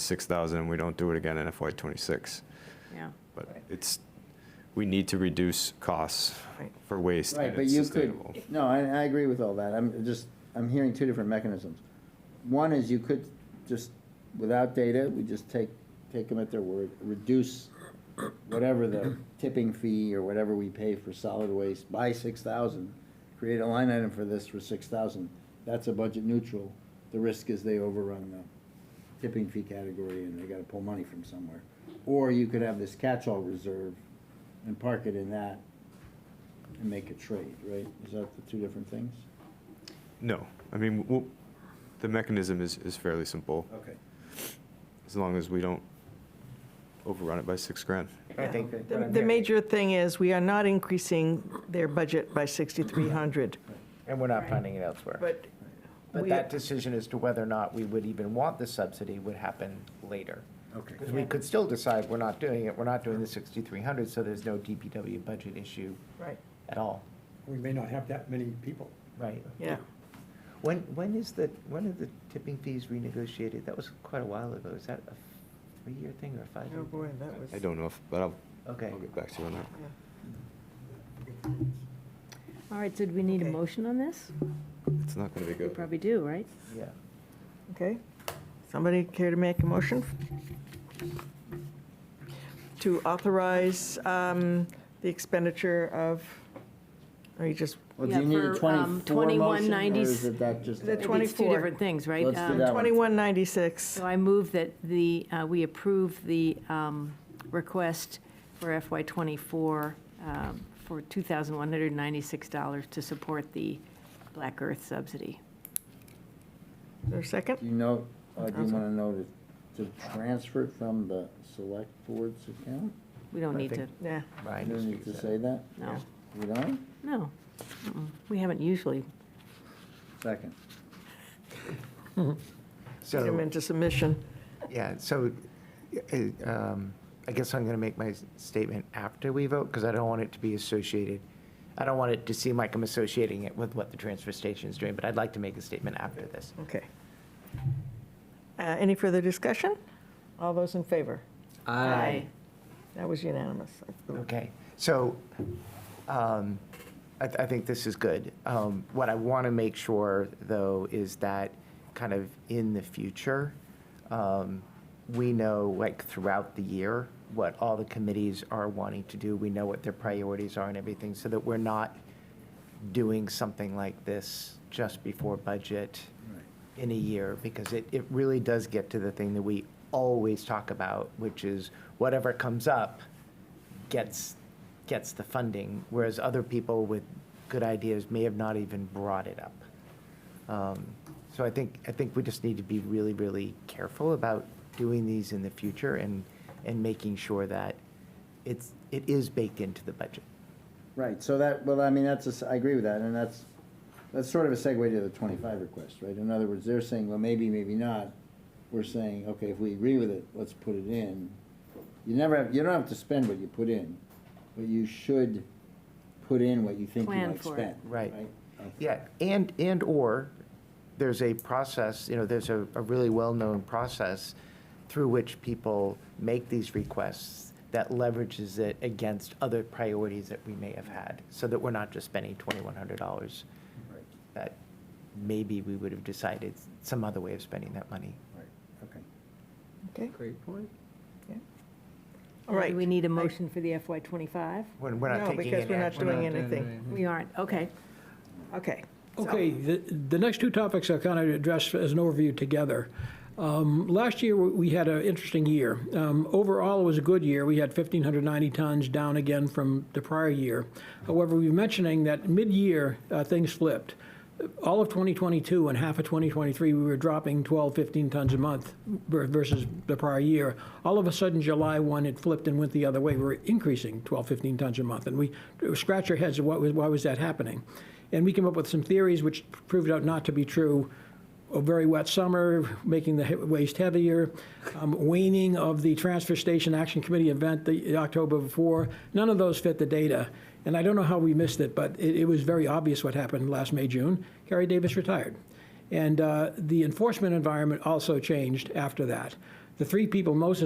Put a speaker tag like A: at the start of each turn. A: 6,000 and we don't do it again in FY '26.
B: yeah.
A: But
C: Right.
A: it's, we need to reduce costs
B: Right.
A: for waste
C: Right,
A: and
C: but
A: it's
C: you could,
A: sustainable.
C: no, I, I agree with all that. I'm just, I'm hearing two different mechanisms. One is you could just, without data, we just take, take them at their word, reduce whatever the tipping fee or whatever we pay for solid waste by six thousand. Create a line item for this for six thousand. That's a budget neutral. The risk is they overrun the tipping fee category and they gotta pull money from somewhere. Or you could have this catch-all reserve and park it in that and make a trade, right? Is that the two different things?
A: No, I mean, w- the mechanism is, is fairly simple,
C: Okay.
A: as long as we don't overrun it by six grand.
C: I think what
B: The
C: I'm
B: the
C: hearing-
B: major thing is, we are not increasing their budget by 6,300,
D: And we're not finding it elsewhere.
B: but
D: But
B: we-
D: that decision as to whether or not we would even want the subsidy would happen later.
C: Okay.
D: Because we could still decide we're not doing it, we're not doing the 6,300, so there's no DPW budget issue
B: right,
D: at all,
E: We may not have that many people.
D: right?
B: yeah.
D: When, when is the, when are the tipping fees renegotiated? That was quite a while ago. Is that a three-year thing or a
B: Oh,
D: five-year?
B: boy, that was.
A: I don't know if, but I'll,
D: Okay.
A: I'll get back to you on that.
B: yeah.
F: All right, so do we need a
B: Okay.
F: motion on this?
A: It's not going to be
F: We
A: good.
F: probably do, right?
D: Yeah.
B: Okay. Somebody care to make a motion? To authorize um, the expenditure of, or you just,
C: Well, do
G: Yeah,
C: you need a
G: for, um,
C: twenty-four motion, or
G: 2190s
C: is it that just?
B: The
G: Maybe It's
B: 24.
G: two different things, right?
C: Let's do
G: Um,
C: that one.
B: 2196,
G: So I move that the, uh, we approve the um, request for FY '24 um, for $2,196 to support the Black Earth subsidy.
B: is there a
C: Do
B: second?
C: you know, uh, do you wanna know to, to transfer it from the select board's account?
G: We don't
D: I
G: need to,
D: think-
B: Yeah,
C: You
D: Ryan
C: don't
D: just
C: need to
D: reset.
C: say that?
G: no,
C: We don't?
G: no. Mm-mm. We haven't usually.
C: Second.
B: put them
D: So,
B: into submission.
D: yeah, so uh, um, I guess I'm going to make my s- statement after we vote because I don't want it to be associated. I don't want it to seem like I'm associating it with what the transfer station is doing, but I'd like to make a statement after this.
B: Okay. Uh, Any further discussion? All those in favor? That was unanimous.
D: Okay, so um, I I think this is good. Um, What I want to make sure, though, is that kind of in the future, um, we know, like, throughout the year, what all the committees are wanting to do. We know what their priorities are and everything, so that we're not doing something like this just before budget in a year, because it, it really does get to the thing that we always talk about, which is whatever comes up gets, gets the funding, whereas other people with good ideas may have not even brought it up. Um, So I think, I think we just need to be really, really careful about doing these in the future and, and making sure that it's, it is baked into the budget.
C: Right, so that, well, I mean, that's, a s- I agree with that, and that's, that's sort of a segue to the twenty-five request, right? In other words, they're saying, well, maybe, maybe not. We're saying, okay, if we agree with it, let's put it in. You never have, you don't have to spend what you put in, but you should put in what you think you
G: Plan
C: might
G: for it.
C: spend.
D: Right.
C: Okay.
D: Yeah, and, and/or there's a process, you know, there's a, a really well-known process through which people make these requests that leverages it against other priorities that we may have had, so that we're not just spending twenty-one hundred dollars
C: Right,
D: that maybe we would have decided some other way of spending that money.
C: right, okay.
B: Okay,
C: Great point.
B: all right.
G: Do we need a motion for the FY '25?
D: When we're not
B: No,
D: taking
B: because
D: any
B: we're not
D: action.
B: doing anything.
G: We aren't, okay.
B: Okay. so-
E: Okay, the, the next two topics I'll kind of address as an overview together. Um, Last year, we we had an interesting year. Um, Overall, it was a good year. We had 1,590 tons, down again from the prior year. However, we were mentioning that mid-year, uh, things flipped. All of 2022 and half of 2023, we were dropping 12, 15 tons a month ver- versus the prior year. All of a sudden, July 1, it flipped and went the other way. We were increasing 12, 15 tons a month, and we scratched our heads, what was- why was that happening? And we came up with some theories which proved out not to be true. A very wet summer, making the he- waste heavier, um, waning of the Transfer Station Action Committee event the October before. None of those fit the data. And I don't know how we missed it, but it, it was very obvious what happened last May, June. Harry Davis retired. And uh, the enforcement environment also changed after that. the three people most